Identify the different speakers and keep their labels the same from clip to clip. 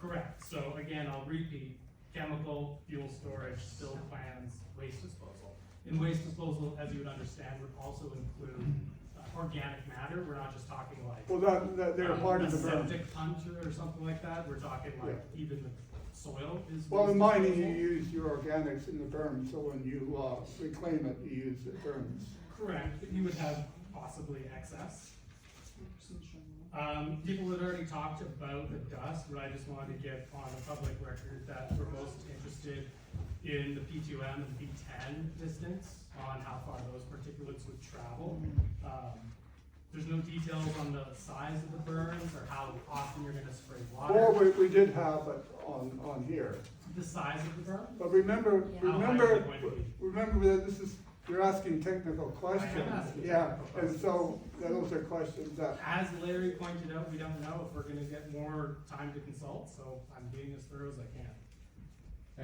Speaker 1: Correct, so again, I'll repeat, chemical, fuel storage, spill plans, waste disposal. And waste disposal, as you would understand, would also include uh, organic matter, we're not just talking like.
Speaker 2: Well, that, that, they're
Speaker 1: um,
Speaker 2: part of
Speaker 1: a
Speaker 2: the berm.
Speaker 1: Septic puncher or something like that, we're talking like even the soil is.
Speaker 2: Well, in
Speaker 1: waste
Speaker 2: mining, you
Speaker 1: disposal.
Speaker 2: use your organics in the berm, so when you, uh, reclaim it, you use the berms.
Speaker 1: Correct, but you would have possibly excess. Um, people had already talked about the dust, but I just wanted to get on the public record that we're most interested in the P two M and P ten distance, on how far those particulates would travel. Um, There's no details on the size of the burns or how often you're gonna spray
Speaker 2: Or
Speaker 1: water,
Speaker 2: we, we did have it on, on here.
Speaker 1: the size of the burn.
Speaker 2: But remember,
Speaker 1: Yeah. How high is
Speaker 2: remember,
Speaker 1: it going to be?
Speaker 2: remember that this is, you're asking technical questions.
Speaker 1: asking
Speaker 2: Yeah,
Speaker 1: technical
Speaker 2: and so those are questions that,
Speaker 1: As Larry pointed out, we don't know if we're gonna get more time to consult, so I'm being as thorough as I can.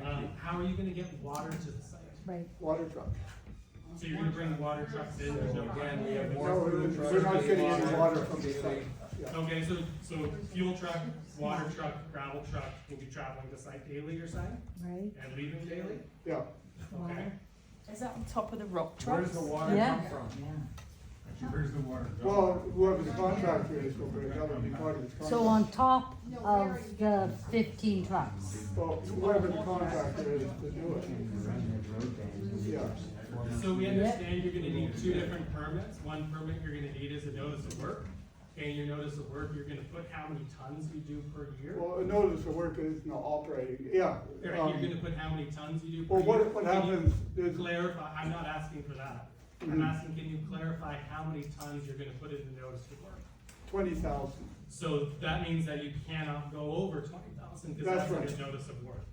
Speaker 1: Um, how are you gonna get water to the site?
Speaker 3: Right.
Speaker 2: water truck.
Speaker 1: So you're gonna bring water trucks in, there's no.
Speaker 4: So again, we have
Speaker 2: No,
Speaker 4: more food
Speaker 2: we're
Speaker 4: trucks.
Speaker 2: not
Speaker 4: daily
Speaker 2: getting any water from the
Speaker 4: daily.
Speaker 2: site. Yeah.
Speaker 1: Okay, so, so fuel truck, water truck, gravel truck will be traveling to site daily, you're saying,
Speaker 3: Right,
Speaker 1: and leaving daily?
Speaker 2: Yeah,
Speaker 1: Okay,
Speaker 3: Is that on top of the rock
Speaker 4: Where
Speaker 3: trucks?
Speaker 4: does the water
Speaker 3: Yeah.
Speaker 4: come from?
Speaker 5: Where's the water?
Speaker 2: well, whoever the contractor is will bring, that would be part of his contract.
Speaker 6: So on top of the fifteen trucks.
Speaker 2: Well, whoever the contractor is to do it. Yeah,
Speaker 1: so we understand you're gonna need two different permits, one permit you're gonna need is a notice of work. Okay, your notice of work, you're gonna put how many tons you do per year?
Speaker 2: well, a notice of work is not operating, yeah.
Speaker 1: Right,
Speaker 2: um,
Speaker 1: you're gonna put how many tons you do per
Speaker 2: Well,
Speaker 1: year?
Speaker 2: what, what
Speaker 1: Can you
Speaker 2: happens is,
Speaker 1: Clarify, I'm not asking for that, I'm
Speaker 2: Mhm.
Speaker 1: asking, can you clarify how many tons you're gonna put in the notice of work?
Speaker 2: twenty thousand,
Speaker 1: So that means that you cannot go over twenty thousand, because
Speaker 2: That's
Speaker 1: that's like
Speaker 2: right.
Speaker 1: a notice of work.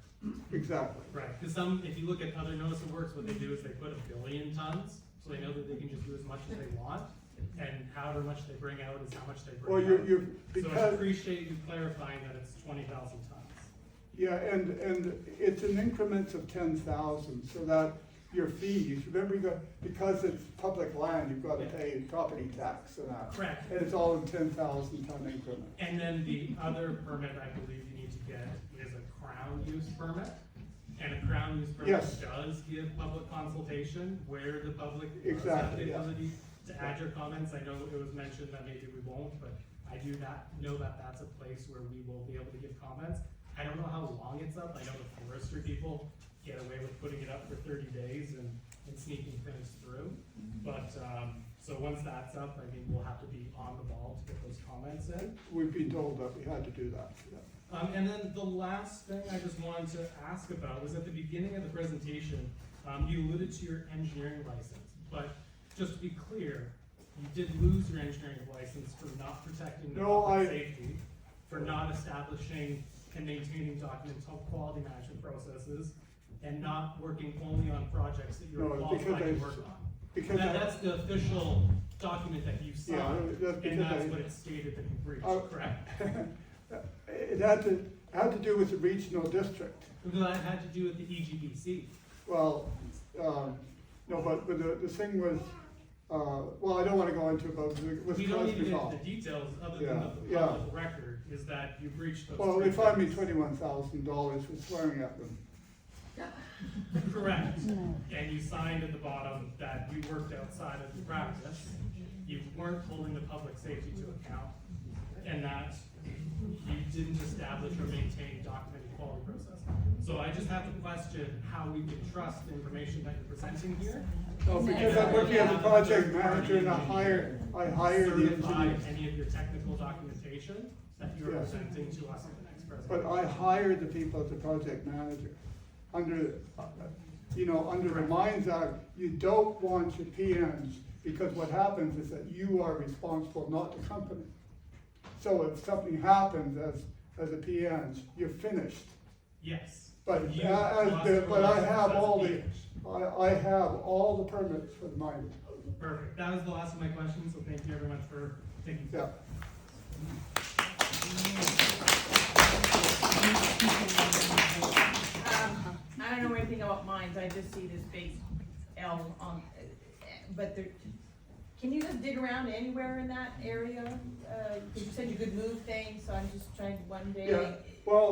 Speaker 2: exactly.
Speaker 1: Right, because some, if you look at other notice of works, what they do is they put a billion tons, so they know that they can just do as much as they want, and however much they bring out is how much they
Speaker 2: Well,
Speaker 1: bring
Speaker 2: you're,
Speaker 1: out.
Speaker 2: you're,
Speaker 1: So I
Speaker 2: because,
Speaker 1: appreciate you clarifying that it's twenty thousand tons.
Speaker 2: yeah, and, and it's in increments of ten thousand, so that your fees, remember you got, because it's public land, you've gotta
Speaker 1: Yeah.
Speaker 2: pay property tax and that.
Speaker 1: Correct,
Speaker 2: And it's all in ten thousand ton increments.
Speaker 1: and then the other permit I believe you need to get is a crown use permit. And a crown use permit
Speaker 2: Yes.
Speaker 1: does give public consultation where the public does have
Speaker 2: Exactly,
Speaker 1: the
Speaker 2: yeah.
Speaker 1: ability to add your comments. I know it was mentioned that maybe we won't, but I do not know that that's a place where we will be able to give comments. I don't know how long it's up. I know the forestry people get away with putting it up for thirty days and, and sneaking things through. But, um, so once that's up, I mean, we'll have to be on the ball to get those comments in.
Speaker 2: We've been told that we had to do that, yeah.
Speaker 1: Um, and then the last thing I just wanted to ask about was at the beginning of the presentation, um, you alluded to your engineering license, but just to be clear, you did lose your engineering license for not protecting the
Speaker 2: No,
Speaker 1: public
Speaker 2: I-
Speaker 1: safety, for not establishing and maintaining document quality management processes, and not working only on projects that you're
Speaker 2: No,
Speaker 1: qualified
Speaker 2: because
Speaker 1: to
Speaker 2: I-
Speaker 1: work on.
Speaker 2: Because
Speaker 1: That-
Speaker 2: I,
Speaker 1: that's the official document that you
Speaker 2: yeah,
Speaker 1: signed,
Speaker 2: that's
Speaker 1: and
Speaker 2: because
Speaker 1: that's
Speaker 2: I,
Speaker 1: what it stated that you breached,
Speaker 2: Oh.
Speaker 1: correct?
Speaker 2: It had to, had to do with the regional district.
Speaker 1: Well, that had to do with the E EGBC.
Speaker 2: Well, um, no, but, but the, the thing was, uh, well, I don't wanna go into about, it was
Speaker 1: We don't need to get
Speaker 2: Coster's
Speaker 1: into the details other than
Speaker 2: Yeah,
Speaker 1: the
Speaker 2: yeah.
Speaker 1: public record is that you breached those.
Speaker 2: Well, they
Speaker 1: three
Speaker 2: fined me
Speaker 1: things.
Speaker 2: twenty-one thousand dollars for swearing at them.
Speaker 1: Correct.
Speaker 6: No.
Speaker 1: And you signed at the bottom that you worked outside of the practice. You weren't holding the public safety to account and that you didn't establish or maintain documented quality process. So I just have to question how we can trust the information that you're presenting here.
Speaker 2: No, Oh, because I'm working as a project manager and I hired, I hired the
Speaker 1: Certify
Speaker 2: engineers.
Speaker 1: any of your technical documentation that you're
Speaker 2: Yeah.
Speaker 1: presenting to us at the next
Speaker 2: But
Speaker 1: presentation.
Speaker 2: I hired the people as a project manager. Under, uh, you know, under the Mines Act, you don't want your PMs, because what happens is that you are responsible, not the company. So if something happens as, as a PMs, you're finished.
Speaker 1: Yes.
Speaker 2: But
Speaker 1: You
Speaker 2: a- as
Speaker 1: lost
Speaker 2: the-
Speaker 1: your
Speaker 2: but I
Speaker 1: license
Speaker 2: have
Speaker 1: as a
Speaker 2: all the,
Speaker 1: beach.
Speaker 2: I, I have all the permits for the mine.
Speaker 1: Perfect, that was the last of my questions, so thank you everyone for taking.
Speaker 2: Yeah.
Speaker 4: Um,
Speaker 7: I don't know anything about mines, I just see this big L on, but there, can you just dig around anywhere in that area? Uh, you said you could move things, so I'm just trying to one day.
Speaker 2: Yeah, well,